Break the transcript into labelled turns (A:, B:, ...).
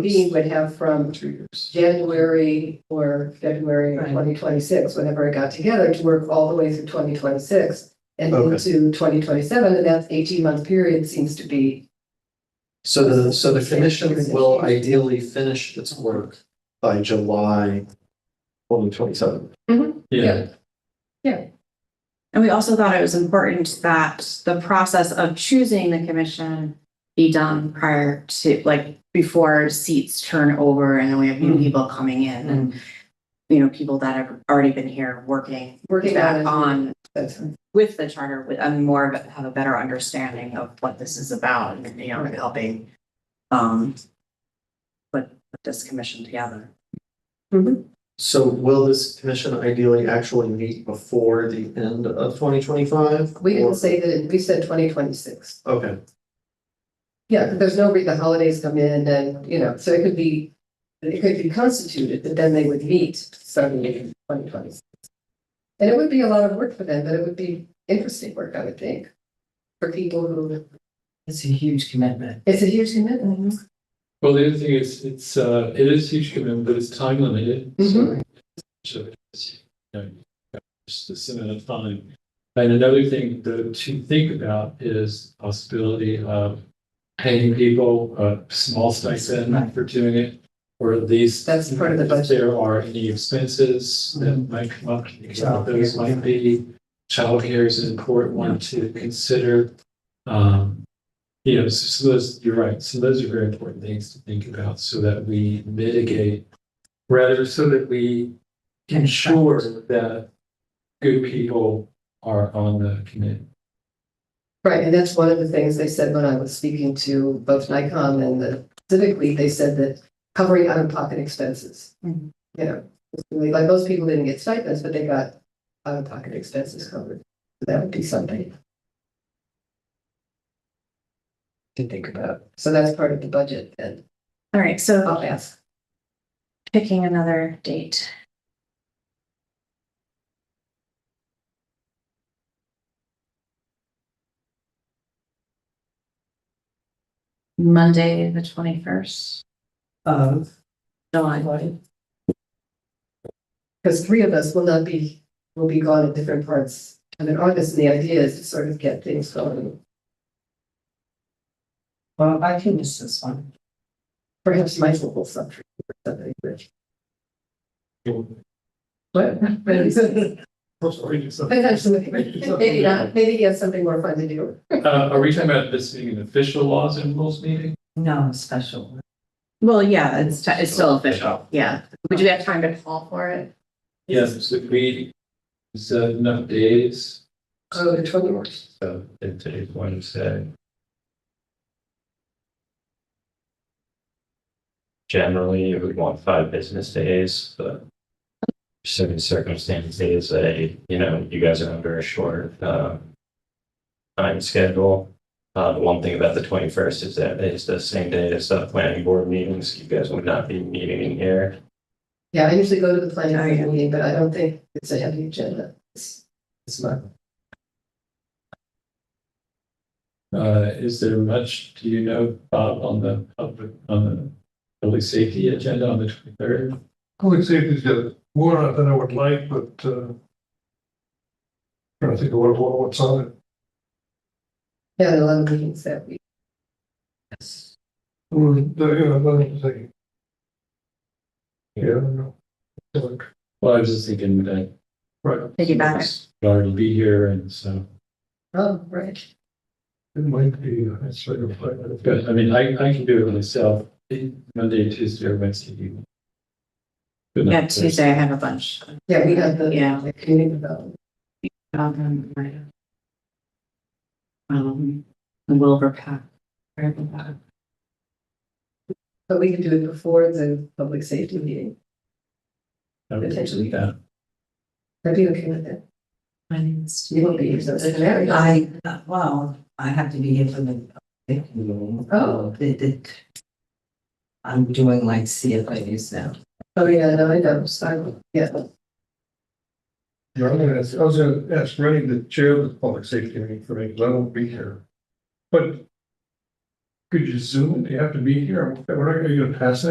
A: B would have from
B: Two years.
A: January or February of
C: Right.
A: twenty twenty-six, whenever it got together, to work all the way through twenty twenty-six and
B: Okay.
A: into twenty twenty-seven, and that eighteen-month period seems to be
B: So the, so the commission will ideally finish its work by July twenty twenty-seven.
A: Yeah.
C: And we also thought it was important that the process of choosing the commission be done prior to, like, before seats turn over and then we have new
B: Mm.
C: people coming in and, you know, people that have already been here working,
A: working
C: back
A: on
C: on
A: it.
C: with the charter, with, and more of, a- have a better understanding of what this is about and, you know, and helping um put put this commission together.
B: So will this commission ideally actually meet before the end of twenty twenty-five?
A: We didn't say that, we said twenty twenty-six.
B: Okay,
A: Yeah, 'cause there's no, re- the holidays come in and, you know, so it could be, it could be constituted, but then they would meet suddenly in twenty twenty-six. And it would be a lot of work for them, but it would be interesting work, I would think, for people who,
D: It's a huge commitment.
A: it's a huge commitment.
E: Well, the other thing is, it's, uh, it is huge commitment, but it's time limited. so-
A: Mhm.
E: So it's, you know, just this amount of time. And another thing to, to think about is possibility of paying people a small stipend
D: Right.
E: for doing it. Or at least.
A: That's part of the
E: if
A: budget. Mm-hmm.
E: There are any expenses that might come up,
D: Childcare.
E: those might be, childcare is an important one to consider. Um, yeah, so so those, you're right. So those are very important things to think about so that we mitigate, rather so that we
D: Can
E: ensure that good people are on the committee.
A: Right, and that's one of the things they said when I was speaking to both Nikon and the Civic League, they said that covering out-of-pocket expenses.
C: Mhm.
A: You know, it's really like most people didn't get stipends, but they got out-of-pocket expenses covered. So That would be something. To think about. So that's part of the budget and
C: All right, so
A: I'll ask.
C: picking another date. Monday, the twenty-first,
D: Of.
C: July.
A: Because three of us will not be, will be gone at different parts of in August, and the idea is to sort of get things going.
D: Well, I can miss this one.
A: Perhaps Michael will suffer. something, but- What?
E: Uh,
A: Potentially, maybe not, maybe he has something more fun to do.
E: Uh, are we talking about this being an official laws and rules meeting?
D: No, special.
C: Well, yeah, it's, ti- it's still official, yeah. Would you have time to call for it?
E: Yes. So we, it's enough days,
A: Oh, the trouble works.
E: so it takes one say.
F: generally you would want five business days, but certain circumstances, uh, you know, you guys are under a short, uh, time schedule. Uh, the one thing about the twenty-first is that it's the same day as the planning board meetings. You guys would not be meeting in here.
A: Yeah, I usually go to the planning
C: Oh, yeah.
A: board meeting, but I don't think it's a heavy agenda. It's
B: it's not,
E: Uh, is there much, do you know, Bob, on the, public on the public safety agenda on the twenty-third?
G: Public safety's got more on it than I would like, but, uh. Trying to think of what, what- what's on it.
A: Yeah, there are a lot of meetings that week.
G: Mm, the- yeah, nothing to say. Yeah, I don't know. Like,
E: Well, I was just thinking that.
G: Right,
C: Piggyback it.
E: I'd Already be here and so,
A: Oh, right.
G: it might be, uh, it's sort of like.
E: but I mean, I, I can do it myself, eh, Monday, Tuesday, or Wednesday evening. Good night,
C: Yeah,
E: Thursday.
C: Tuesday, I have a bunch.
A: Yeah, we have the,
C: Yeah.
A: the community development.
C: Um, right. Um, Wilbur Pack.
A: But we can do it before the public safety meeting.
E: I would
A: potentially.
E: do that.
A: I'd be okay with that.
D: My name is.
A: You won't be here, so it's an area.
D: I, uh, well, I have to be here for the.
A: Oh.
D: It, it. I'm doing like CFAs now.
A: Oh, yeah, no, I know, so, I will- yeah.
G: Yeah, I'm gonna ask, I was gonna ask Rennie, the chair of the public safety meeting for me, because I won't be here. But. Could you zoom, it? do you have to be here, we're not gonna pass that